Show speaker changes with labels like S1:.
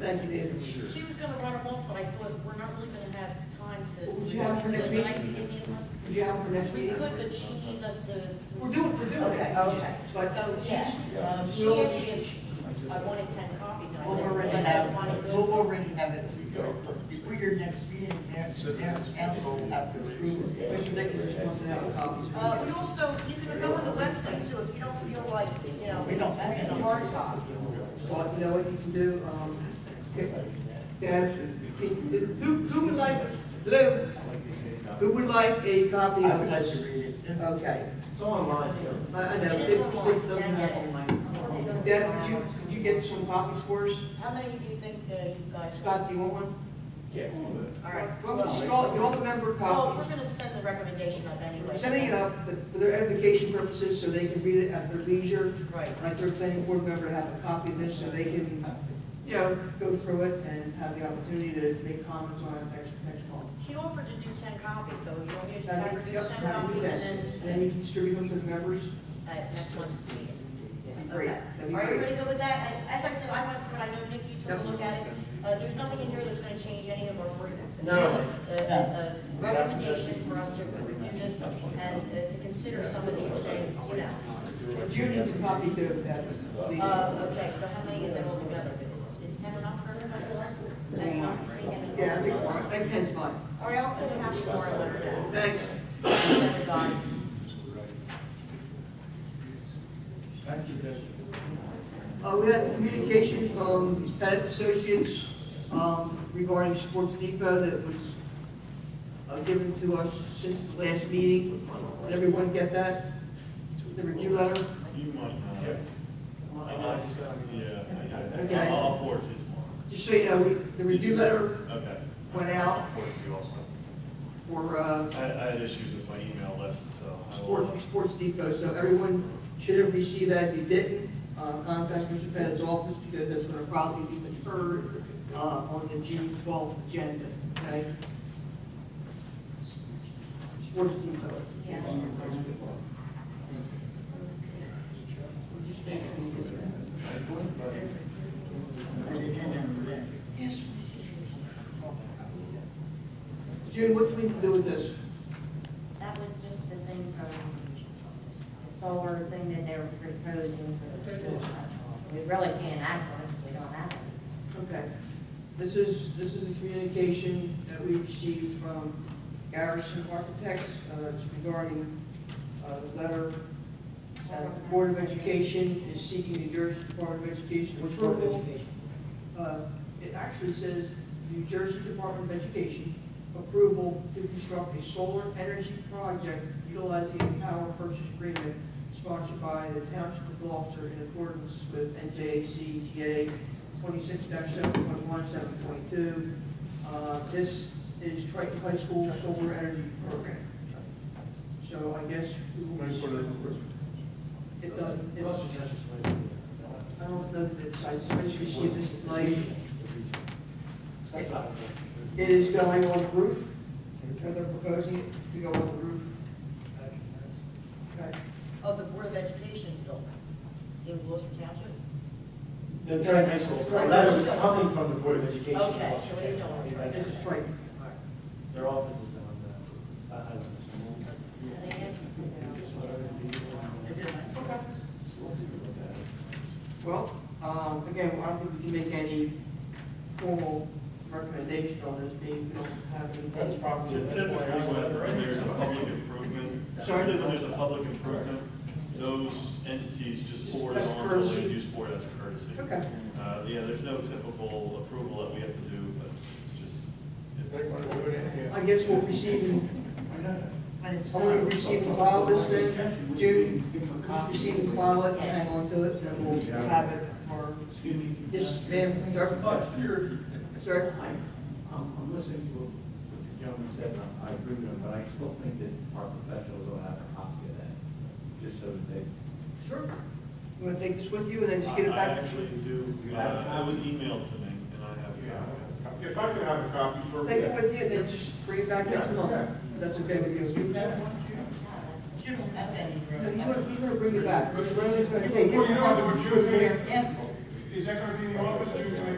S1: Thank you, David.
S2: She was gonna run them off, but I thought, we're not really gonna have time to.
S1: Would you have her next meeting?
S2: Like, in the month?
S1: Would you have it for next
S2: We
S1: meeting?
S2: could, but she needs us to.
S1: We're doing, we're doing
S2: Okay,
S1: it.
S2: okay.
S1: But-
S2: So, yeah, um, she
S1: We'll-
S2: asked me if I wanted ten copies, and I
S3: We'll
S2: said,
S3: already
S2: I
S3: have,
S2: don't want to
S3: we'll
S2: go.
S3: already have it, before your next meeting, there, there, council will have to approve it.
S1: Mr. Nicholas wants to have a copy.
S2: Uh, we also, you can go on the website, so if you don't feel like, you know,
S3: We don't have
S2: it's a
S3: any.
S2: hard copy.
S1: Well, you know what you can do, um, if- guys, if- if- who, who would like, Lou, who would like a copy
S3: I
S1: of
S3: would like to
S1: this?
S3: read it.
S1: Okay,
S4: It's online too.
S1: I, I know,
S2: It
S1: it
S2: is online.
S1: it doesn't have online. Dad, could you, could you get some copies for us?
S2: How many do you think uh, you guys?
S1: Scott, do you want one?
S4: Yeah.
S2: All right.
S1: Well,
S2: twelve.
S1: you all, you all remember
S2: Well, we're
S1: copies.
S2: gonna send the recommendation up anyway.
S1: Sending it up for their edification purposes, so they can read it at their leisure.
S2: Right.
S1: Like their planning board member to have a copy of this, so they can, you know, go through it and have the opportunity to make comments on it next, next month.
S2: She offered to do ten copies, so you want me to just have her do
S1: Yes,
S2: ten
S1: that'd be
S2: copies and
S1: best. And
S2: then,
S1: then you can distribute them to the members?
S2: at Uh, next month's meeting.
S1: Great,
S2: Okay.
S1: that'd be
S2: Are you
S1: great.
S2: ready to go with that? And As I said, I went through, it. I know Nick, you took a look at it. Uh, there's nothing in here that's gonna change any of our ordinances.
S4: No.
S2: It's just A, a a recommendation for us to review this and uh, to consider some of these things, you know.
S1: Judy needs a copy too, if that was, please.
S2: Uh, okay, so how many is that all together? Is is ten enough for everybody? Ten enough?
S1: Yeah, I think, I think ten's fine.
S2: All right, I'll put a happy hour letter down.
S1: Thanks.
S2: Send it on.
S1: Uh, we had communication from Pettit Associates, um, regarding Sports Depot that was, uh, given to us since the last meeting. Did everyone get that? The review letter?
S5: You might not. I got you. Yeah, I got it.
S1: Okay.
S5: I'll forward you tomorrow.
S1: Just so you know, we, the review letter
S5: Okay.
S1: went out
S5: I'll forward you also.
S1: for, uh,
S5: I, I had issues with my email list, so. I will-
S1: Sports, Sports Depot, so everyone should have received that. If you didn't, uh, contact Mr. Pettit's office because that's going to probably be deferred, uh, on the June twelfth agenda, okay? Sports Depot.
S2: Yeah.
S1: We'll just make sure we get that.
S3: Yes.
S1: June, what do we need to do with this?
S6: That was just the thing from the solar thing that they're proposing for the school. We really can't act on it, because we don't have it.
S1: Okay. This is, this is a communication that we received from Garrison Architects uh, it's regarding uh, the letter that the Board of Education is seeking New Jersey Department of Education approval. Uh, It actually says New Jersey Department of Education approval to construct a solar energy project utilizing a power purchase agreement sponsored by the Township of Gloucester in accordance with NJCGA twenty-six seven point one, seven point two. Uh, This is Triton High School Solar Energy Program. So I guess. we will- It doesn't, it doesn't. I don't know that it's, I just received this tonight. It is going on the roof, or they're proposing it to go on the roof. Okay.
S2: of the Board of Education building in Gloucester Township?
S4: The Trent High School, that was coming from the Board of Education.
S2: Okay, so it is on the Trent.
S1: This is Triton.
S4: Their offices on the, I I don't know.
S6: And they asked me to do it.
S1: Okay. Well, um, again, I don't think we can make any formal recommendation on this, being we don't have any.
S4: That's probably-
S5: Typically, when there's a public improvement,
S1: Sorry?
S5: typically when there's a public improvement, those entities just forward it
S1: As
S5: on to the
S1: courtesy.
S5: land use board as a courtesy.
S1: Okay.
S5: Uh, yeah, there's no typical approval that we have to do, but it's just.
S4: They want to do it in here.
S1: I guess we'll receive, in-
S3: When it's
S1: only
S3: done.
S1: receive and file this then, June, uh, receive and file it, hang on to it, then we'll have it for,
S7: Excuse me. Oh,
S1: yes, ma'am, sir? Sir?
S7: I'm, I'm I'm listening to what the gentleman said, and I agree with him, but I still think that our professionals ought to have a copy of that, just so that they.
S1: Sure. You want to take this with you and then just get it
S5: I
S1: back?
S5: actually do, uh, it was emailed to me, and I have.
S8: If I could have a copy for.
S1: Take it with you and then just bring it back next month. That's okay with you?
S3: You have one, Jim? You don't have any,
S1: No,
S3: really.
S1: he's gonna, he's gonna bring it back. Brandon's gonna take it.
S8: Well, you know, what, June,
S3: Cancel.
S8: is that going to be in the office, June